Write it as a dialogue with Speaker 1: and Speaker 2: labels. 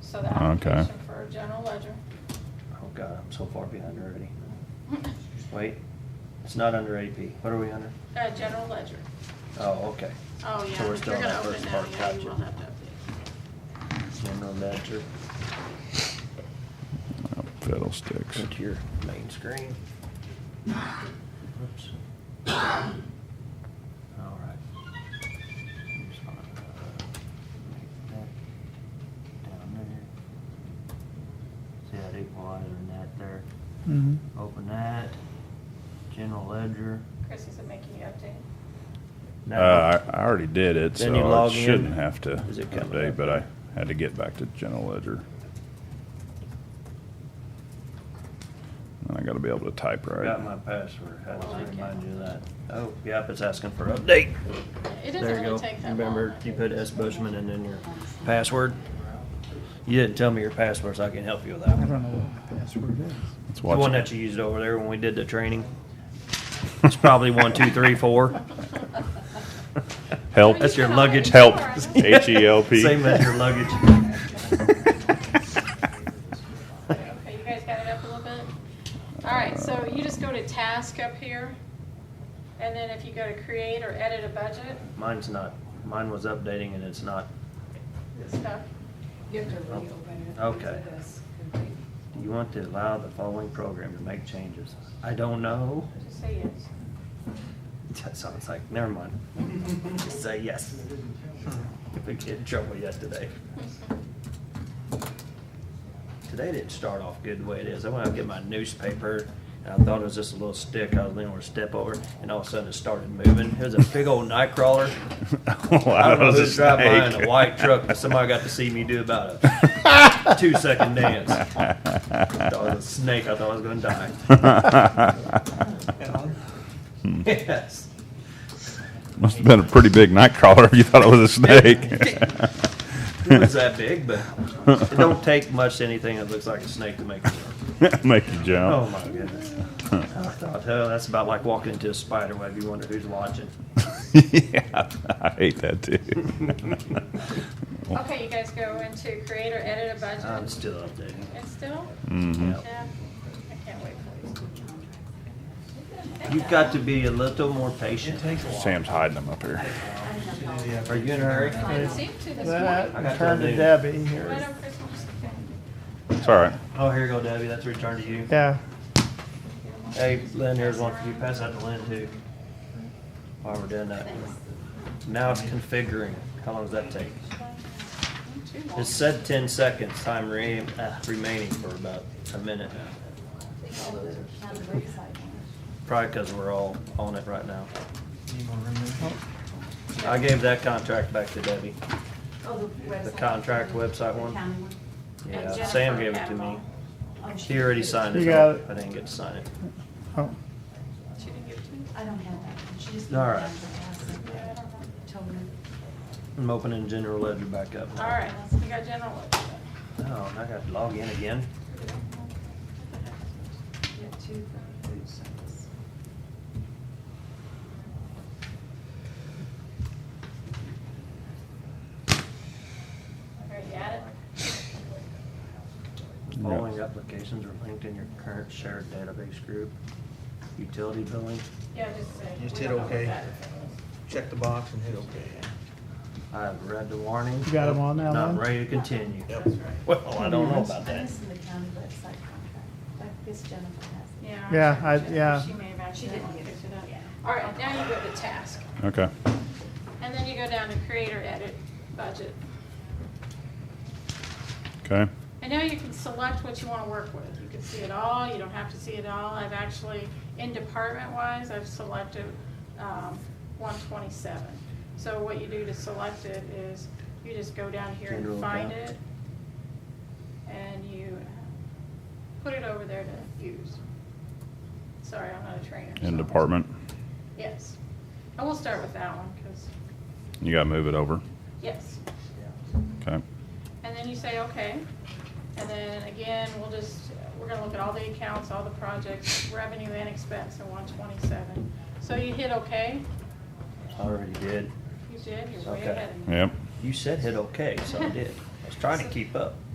Speaker 1: So the
Speaker 2: Okay.
Speaker 1: application for a general ledger.
Speaker 3: Oh God, I'm so far behind already. Wait, it's not under AP. What are we under?
Speaker 1: Uh, general ledger.
Speaker 3: Oh, okay.
Speaker 1: Oh,
Speaker 3: So
Speaker 1: yeah,
Speaker 3: we're
Speaker 1: if
Speaker 3: still
Speaker 1: you're
Speaker 3: on
Speaker 1: gonna
Speaker 3: that
Speaker 1: open
Speaker 3: first
Speaker 1: now,
Speaker 3: part,
Speaker 1: yeah, you
Speaker 3: gotcha.
Speaker 1: will have to update.
Speaker 3: General ledger.
Speaker 2: Oh, Fiddlesticks.
Speaker 3: Go to your main screen. Oops. All right. I'm just gonna, uh, make that Down there. See that equalizer and that there.
Speaker 2: Mhm.
Speaker 3: Open that. General ledger.
Speaker 1: Chris, is it making you update?
Speaker 2: Uh,
Speaker 3: No.
Speaker 2: I I already did it,
Speaker 3: Then you
Speaker 2: so I
Speaker 3: log in.
Speaker 2: shouldn't have to
Speaker 3: Is it coming
Speaker 2: update,
Speaker 3: up?
Speaker 2: but I had to get back to general ledger. And I gotta be able to type
Speaker 3: Got my
Speaker 2: right.
Speaker 3: password. How
Speaker 1: Well, I
Speaker 3: does it remind
Speaker 1: can-
Speaker 3: you of that? Oh, yep, it's asking for update.
Speaker 1: It
Speaker 3: There
Speaker 1: doesn't
Speaker 3: you go.
Speaker 1: really take that long.
Speaker 3: Remember, you put S. Bushman and then your password. You didn't tell me your password, so I can help you with that.
Speaker 4: I
Speaker 3: one.
Speaker 4: don't know what the password is.
Speaker 2: Let's
Speaker 3: The
Speaker 2: watch
Speaker 3: one
Speaker 2: it.
Speaker 3: that you used over there when we did the training. It's probably one, two, three, four.
Speaker 2: Help.
Speaker 3: That's your luggage.
Speaker 2: Help. H E L P.
Speaker 3: Same as your luggage.
Speaker 1: Okay, you guys got it up a little bit? All right, so you just go to task up here, and then if you go to create or edit a budget,
Speaker 3: Mine's not, mine was updating and it's not.
Speaker 1: this stuff.
Speaker 5: You have to reopen it.
Speaker 3: Okay.
Speaker 5: This could be-
Speaker 3: Do you want to allow the following program to make changes? I don't know.
Speaker 1: Just say yes.
Speaker 3: So it's like, never mind. Just say yes. Hmm. We get in trouble yesterday. Today didn't start off good the way it is. I went out to get my newspaper, and I thought it was just a little stick I was leaning over to step over, and all of a sudden it started moving. It was a big old night crawler. I don't know
Speaker 2: Oh, was a
Speaker 3: who's driving behind
Speaker 2: snake.
Speaker 3: a white truck, but somebody got to see me do about a two-second dance. I thought it was a snake. I thought I was gonna die. Yes.
Speaker 2: Must have been a pretty big night crawler if you thought it was a
Speaker 3: It was
Speaker 2: snake.
Speaker 3: that big, but it don't take much to anything that looks like a snake to make it work.
Speaker 2: Make you
Speaker 3: Oh
Speaker 2: jump.
Speaker 3: my goodness. I thought, oh, that's about like walking into a spider web. You wonder who's watching.
Speaker 2: yeah, I hate that too.
Speaker 1: Okay, you guys go into create or edit a
Speaker 3: I'm
Speaker 1: budget,
Speaker 3: still updating.
Speaker 1: and still,
Speaker 2: Mhm.
Speaker 3: Yep.
Speaker 1: yeah, I can't wait for these.
Speaker 3: You've got to be a little more patient.
Speaker 2: Sam's hiding them up here.
Speaker 3: Are you in a hurry?
Speaker 1: I didn't seem to this
Speaker 4: That,
Speaker 1: morning.
Speaker 3: I got
Speaker 4: turn to
Speaker 3: that.
Speaker 4: Debbie
Speaker 1: Why
Speaker 4: here.
Speaker 1: don't Chris just-
Speaker 2: It's all right.
Speaker 3: Oh, here you go, Debbie. That's returned to you.
Speaker 4: Yeah,
Speaker 3: Hey, Lynn, here's one for you. Pass that to Lynn too. While we're doing that. Now it's configuring. How long does that take? It said ten seconds, time re- uh, remaining for about a minute now. Probably because we're all on it right now. I gave that contract back to Debbie.
Speaker 6: Oh, the
Speaker 3: The
Speaker 6: website.
Speaker 3: contract website
Speaker 6: The
Speaker 3: one?
Speaker 6: county one?
Speaker 3: Yeah,
Speaker 1: Jennifer
Speaker 3: Sam gave it to me.
Speaker 1: Catmull.
Speaker 6: Oh, she
Speaker 3: She already
Speaker 6: did.
Speaker 3: signed
Speaker 4: You
Speaker 3: it.
Speaker 4: got it.
Speaker 3: I didn't get to sign it.
Speaker 4: oh,
Speaker 1: She didn't give it to me.
Speaker 6: I don't have that. one. She just.
Speaker 3: All right.
Speaker 1: Yeah, I don't know.
Speaker 6: Told me.
Speaker 3: I'm opening general ledger back up.
Speaker 1: All right, we got general ledger.
Speaker 3: Oh, and I got to log in again.
Speaker 6: Yeah, two for food service.
Speaker 1: All right, you got it?
Speaker 2: Yeah.
Speaker 3: Following applications are linked in your current shared database group. Utility billing.
Speaker 1: Yeah, just say.
Speaker 7: Just
Speaker 1: we
Speaker 7: hit
Speaker 1: don't know what
Speaker 7: okay.
Speaker 1: that is.
Speaker 7: check the box and hit okay.
Speaker 3: I have read the warning.
Speaker 4: You got 'em on now, Lynn?
Speaker 3: Not ready to continue.
Speaker 7: Yep.
Speaker 3: Well, I don't know about
Speaker 6: I'm
Speaker 3: that.
Speaker 6: missing the county website contract. Like this Jennifer has. it.
Speaker 1: Yeah.
Speaker 4: Yeah,
Speaker 1: I'm
Speaker 4: I-
Speaker 1: sure
Speaker 4: yeah.
Speaker 1: She may have
Speaker 6: She
Speaker 1: actually
Speaker 6: didn't
Speaker 1: picked
Speaker 6: get it.
Speaker 1: it up. All right, now you go to task,
Speaker 2: Okay.
Speaker 1: and then you go down to create or edit budget.
Speaker 2: Okay.
Speaker 1: And now you can select what you wanna work with. You can see it all, you don't have to see it all. I've actually, in department wise, I've selected, um, one twenty-seven. So what you do to select it is you just go down here
Speaker 3: General
Speaker 1: and find
Speaker 3: account.
Speaker 1: it. And you uh, put it over there to use. Sorry, I'm not a trainer.
Speaker 2: In
Speaker 1: so-
Speaker 2: department.
Speaker 1: Yes. And we'll start with that one, cause,
Speaker 2: You gotta move it over.
Speaker 1: yes.
Speaker 2: Okay.
Speaker 1: And then you say, okay. And then again, we'll just, we're gonna look at all the accounts, all the projects, revenue and expense in one twenty-seven. So you hit okay?
Speaker 3: I already did.
Speaker 1: You did, you're way
Speaker 3: Okay.
Speaker 1: ahead of me.
Speaker 2: Yep.
Speaker 3: You said hit okay, so I did. I was trying to keep up.